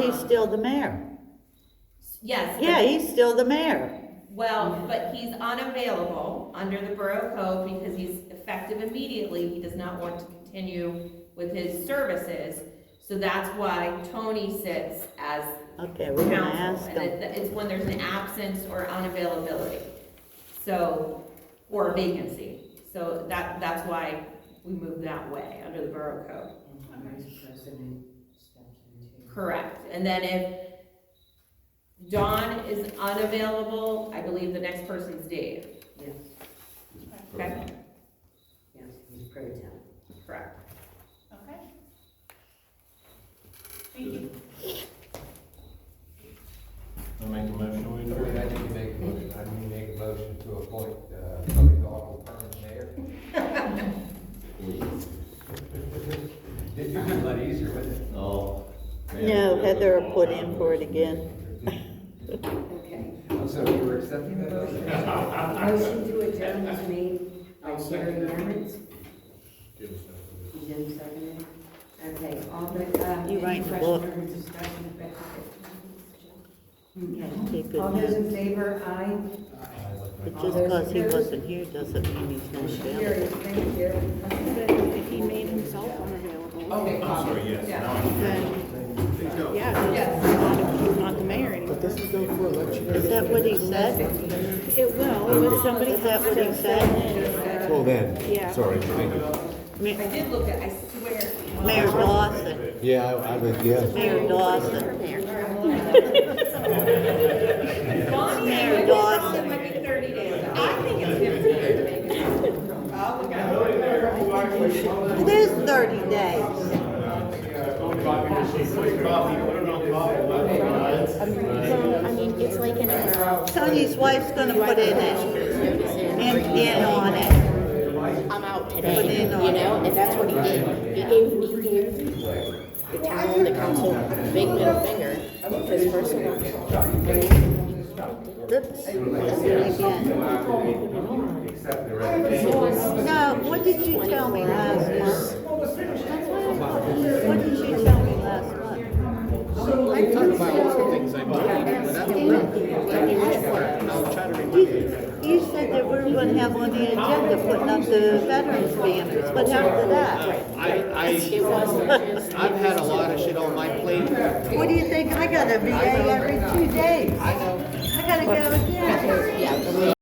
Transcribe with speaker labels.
Speaker 1: He's still the mayor.
Speaker 2: Yes. but-
Speaker 1: Yeah, he's still the mayor.
Speaker 2: Well, but he's unavailable under the Borough Code because he's effective immediately. He does not want to continue with his services. So that's why Tony sits as
Speaker 1: Okay, we're gonna ask
Speaker 2: counsel.
Speaker 1: him.
Speaker 2: And it- it's when there's an absence or unavailability. So, or a vacancy. So that, that's why we move that way under the Borough Code.
Speaker 3: Vice President steps in too.
Speaker 2: Correct, and then if Dawn is unavailable, I believe the next person's Dave,
Speaker 3: Yes,
Speaker 2: okay?
Speaker 3: yes, he's pro temp.
Speaker 2: Correct.
Speaker 4: Okay. Thank you.
Speaker 5: I'll make a motion we
Speaker 6: I mean,
Speaker 5: adjourn.
Speaker 6: I need to make a motion, I need to make a motion to appoint, uh, Tony Goggle permanent mayor. It'd be a lot easier, wouldn't it?
Speaker 5: No.
Speaker 1: No, Heather will put in for it again.
Speaker 3: Okay,
Speaker 6: So you were accepting that
Speaker 3: motion
Speaker 6: motion?
Speaker 3: to adjourn was made by Terry Emmett. Jim seconded. Okay, all the, uh,
Speaker 1: You
Speaker 3: any
Speaker 1: write the
Speaker 3: question
Speaker 1: book.
Speaker 3: or discussion about it?
Speaker 1: Keep
Speaker 3: Okay,
Speaker 1: it
Speaker 3: all
Speaker 1: in.
Speaker 3: those in favor, aye?
Speaker 1: But just because he wasn't here doesn't mean he's not
Speaker 3: Carried,
Speaker 1: available.
Speaker 3: thank you.
Speaker 7: He made himself unavailable.
Speaker 3: Okay,
Speaker 5: I'm sorry, yes,
Speaker 2: Yeah.
Speaker 5: now I
Speaker 7: Then, yeah,
Speaker 2: Yes.
Speaker 7: he's not the mayor anymore.
Speaker 1: Is that what he said?
Speaker 7: It will, but somebody
Speaker 1: Is that
Speaker 7: has
Speaker 1: what he
Speaker 7: to,
Speaker 1: said?
Speaker 8: Well then,
Speaker 7: yeah.
Speaker 8: sorry.
Speaker 2: I
Speaker 1: Ma-
Speaker 2: did look at, I swear.
Speaker 1: Mayor Dawson,
Speaker 8: Yeah, I, I would, yeah.
Speaker 1: Mayor Dawson.
Speaker 2: Bonnie,
Speaker 1: Mayor
Speaker 2: I
Speaker 1: Dawson.
Speaker 2: it might be thirty days. I think it's fifteen. Oh, we got it.
Speaker 1: It is thirty days.
Speaker 9: Well, I mean, it's like an umbrella.
Speaker 1: Tony's wife's gonna put in it, in, in on it.
Speaker 9: I'm out
Speaker 1: Put
Speaker 9: today,
Speaker 1: in on
Speaker 9: you
Speaker 1: it.
Speaker 9: know, and that's what he did. He gave, he gave the town, the council, a big middle finger for his first one.
Speaker 1: Oops, that's it again.
Speaker 6: Accept the resignation.
Speaker 1: No, what did you tell me last month? What did you tell me last month?
Speaker 8: I talk about lots of things I'm doing, but I don't know. Tell me which one, and I'll try to remember.
Speaker 1: You- You said that we were gonna have on the agenda putting up the veterans banners, but after that,
Speaker 8: I,
Speaker 9: It
Speaker 8: I,
Speaker 9: wasn't just.
Speaker 8: I've had a lot of shit on my plate.
Speaker 1: what do you think? I got a VA every two days. I gotta go again.
Speaker 9: Yeah,